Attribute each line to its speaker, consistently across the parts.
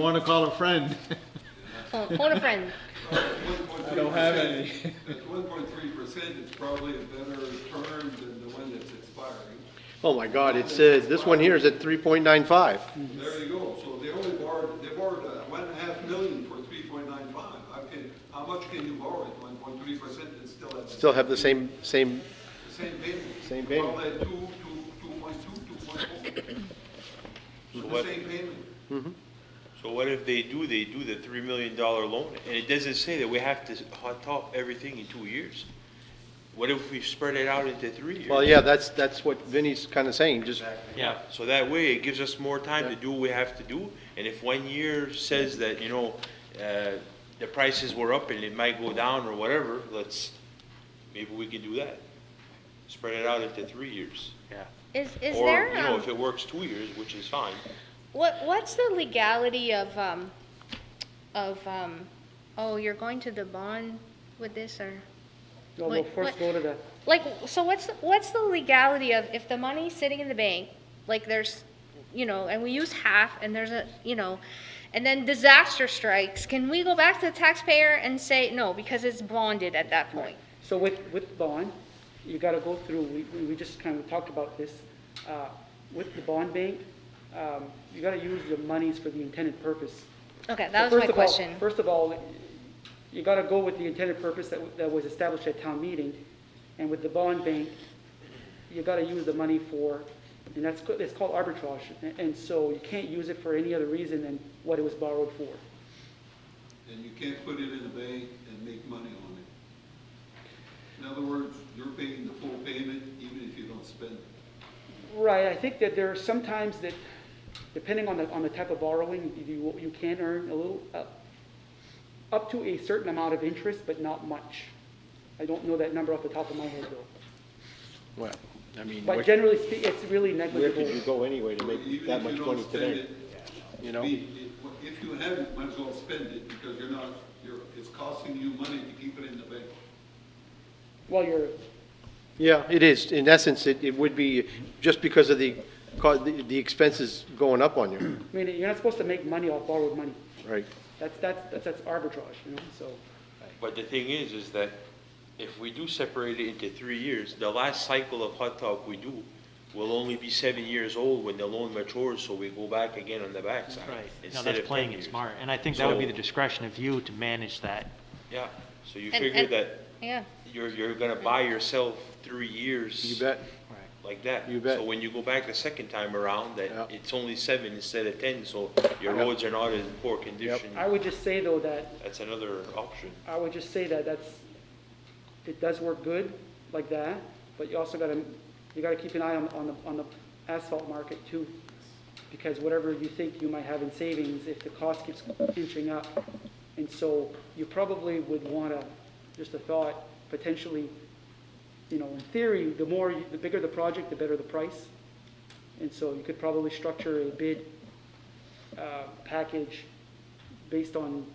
Speaker 1: Want to call a friend?
Speaker 2: Oh, phone a friend.
Speaker 1: I don't have any.
Speaker 3: At one point three percent, it's probably a better term than the one that's expiring.
Speaker 4: Oh my God, it's, uh, this one here is at three point nine five.
Speaker 1: Mm-hmm.
Speaker 3: There you go. So they only borrowed, they borrowed uh, one and a half million for three point nine five. I can, how much can you borrow at one point three percent and still have? the
Speaker 4: Still have the same, same,
Speaker 3: Same payment.
Speaker 4: Same payment.
Speaker 3: Probably two, two, two point two, two point
Speaker 5: So
Speaker 3: four.
Speaker 5: what,
Speaker 3: The same payment.
Speaker 5: so what if they do, they do the three million dollar loan, and it doesn't say that we have to hot top everything in two years? What if we spread it out into three years?
Speaker 4: well, yeah, that's, that's what Vinnie's kinda saying, just,
Speaker 5: Yeah, so that way it gives us more time to do what we have to do, and if one year says that, you know, uh, the prices were up and it might go down or whatever, let's, maybe we can do that. Spread it out into three years. Yeah.
Speaker 2: Is, is
Speaker 5: Or,
Speaker 2: there,
Speaker 5: you know,
Speaker 2: um,
Speaker 5: if it works two years, which is fine,
Speaker 2: what, what's the legality of, um, of, um, oh, you're going to the bond with this or?
Speaker 6: No,
Speaker 2: Wait,
Speaker 6: we'll
Speaker 2: what-
Speaker 6: first go to the,
Speaker 2: Like, so what's, the- what's the legality of if the money's sitting in the bank, like there's, you know, and we use half and there's a, you know, and then disaster strikes, can we go back to the taxpayer and say, no, because it's bonded at that point?
Speaker 6: so with, with bond, you gotta go through, we, we- we just kind of talked about this. uh, With the bond bank, um, you gotta use the monies for the intended purpose.
Speaker 2: Okay,
Speaker 6: So
Speaker 2: that was my
Speaker 6: first of all-
Speaker 2: question.
Speaker 6: First of all, you gotta go with the intended purpose that, w- that was established at town meeting. And with the bond bank, you gotta use the money for, and that's, co- it's called arbitrage. And- And so you can't use it for any other reason than what it was borrowed for.
Speaker 3: And you can't put it in a bank and make money on it. In other words, you're paying the full payment even if you don't spend it.
Speaker 6: Right, I think that there are sometimes that, depending on the, on the type of borrowing, you, you can earn a little, uh, up to a certain amount of interest, but not much. I don't know that number off the top of my head though.
Speaker 4: well, I mean,
Speaker 6: But
Speaker 4: where
Speaker 6: generally speaking, it's really
Speaker 4: where could you
Speaker 6: negligible.
Speaker 4: go anyway to make
Speaker 3: Even
Speaker 4: that
Speaker 3: if you
Speaker 4: much
Speaker 3: don't
Speaker 4: money
Speaker 3: spend
Speaker 4: today?
Speaker 3: it,
Speaker 4: You know,
Speaker 3: Be- it- If you have it, might as well spend it, because you're not, you're, it's costing you money to keep it in the bank.
Speaker 6: Well, you're,
Speaker 4: yeah, it is, in essence, it, it would be, just because of the, co- the the expenses going up on you,
Speaker 6: I mean, you're not supposed to make money off borrowed money.
Speaker 4: right?
Speaker 6: That's, that's, that's that's arbitrage, you know, so.
Speaker 5: But the thing is, is that if we do separate it into three years, the last cycle of hot top we do will only be seven years old when the loan matures, so we go back again on the backside.
Speaker 7: Right, no,
Speaker 5: instead
Speaker 7: that's
Speaker 5: of
Speaker 7: playing
Speaker 5: 10
Speaker 7: it
Speaker 5: years.
Speaker 7: smart, and I think that would be the
Speaker 5: So-
Speaker 7: discretion of you to manage that.
Speaker 5: Yeah, so you
Speaker 2: And-
Speaker 5: figure
Speaker 2: and-
Speaker 5: that
Speaker 2: Yeah,
Speaker 5: you're, you're gonna buy yourself three years.
Speaker 4: You bet,
Speaker 5: Like that.
Speaker 4: You bet.
Speaker 5: So when you go back the second time around,
Speaker 4: Yeah.
Speaker 5: that it's only seven instead of ten, so your
Speaker 4: Yep.
Speaker 5: roads are not in poor condition.
Speaker 6: I would just say though that
Speaker 5: That's another option.
Speaker 6: I would just say that that's, it does work good like that, but you also gotta, you gotta keep an eye on, on the, on the asphalt market too. Because whatever you think you might have in savings, if the cost keeps inching up. And so you probably would wanna, just a thought, potentially, you know, in theory, the more, you- the bigger the project, the better the price. And so you could probably structure a bid, uh, package based on,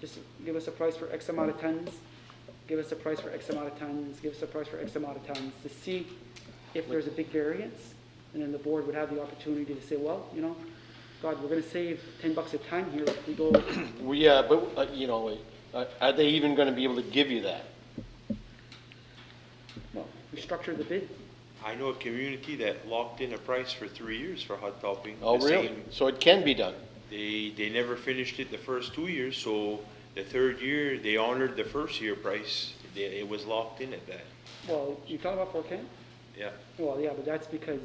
Speaker 6: just give us a price for X amount of tons, give us a price for X amount of tons, give us a price for X amount of tons, to see if there's a big variance, and then the board would have the opportunity to say, well, you know, God, we're gonna save ten bucks a ton here if we go,
Speaker 4: Well, yeah, but, uh, you know, uh, are they even gonna be able to give you that?
Speaker 6: well, we structure the bid.
Speaker 5: I know a community that locked in a price for three years for hot topping.
Speaker 4: Oh,
Speaker 5: the
Speaker 4: really?
Speaker 5: same-
Speaker 4: So it can be done?
Speaker 5: They, they never finished it the first two years, so the third year, they honored the first year price. They, it was locked in at that,
Speaker 6: Well, you talking about four K?
Speaker 5: yeah,
Speaker 6: Well, yeah, but that's because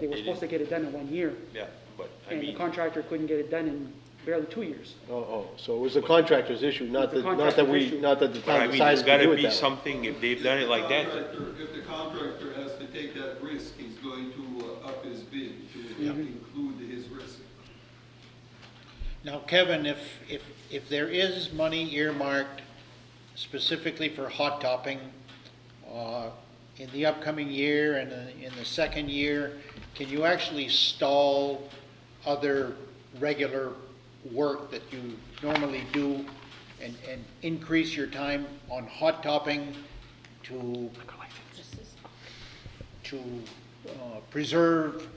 Speaker 6: they were
Speaker 5: They
Speaker 6: supposed to get it done in one year,
Speaker 5: yeah, but I
Speaker 6: and the
Speaker 5: mean,
Speaker 6: contractor couldn't get it done in barely two years.
Speaker 4: Oh, oh, so it was the contractor's issue, not
Speaker 6: It's the
Speaker 4: that, not that
Speaker 6: contractor's
Speaker 4: we,
Speaker 6: issue.
Speaker 4: not that Oh, the
Speaker 5: but I
Speaker 4: town
Speaker 5: mean, there's
Speaker 4: decided to do
Speaker 5: gotta
Speaker 4: it
Speaker 5: be
Speaker 4: that way.
Speaker 5: something, if they've
Speaker 3: If
Speaker 5: done
Speaker 3: the
Speaker 5: it like that,
Speaker 3: contractor- If the contractor has to take that risk, he's going to uh, up his bid to include his risk.
Speaker 1: Now, Kevin, if, if, if there is money earmarked specifically for hot topping, uh, in the upcoming year and uh, in the second year, can you actually stall other regular work that you normally do and, and increase your time on hot topping to to uh, preserve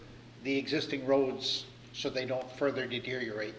Speaker 1: the existing roads so they don't further deteriorate?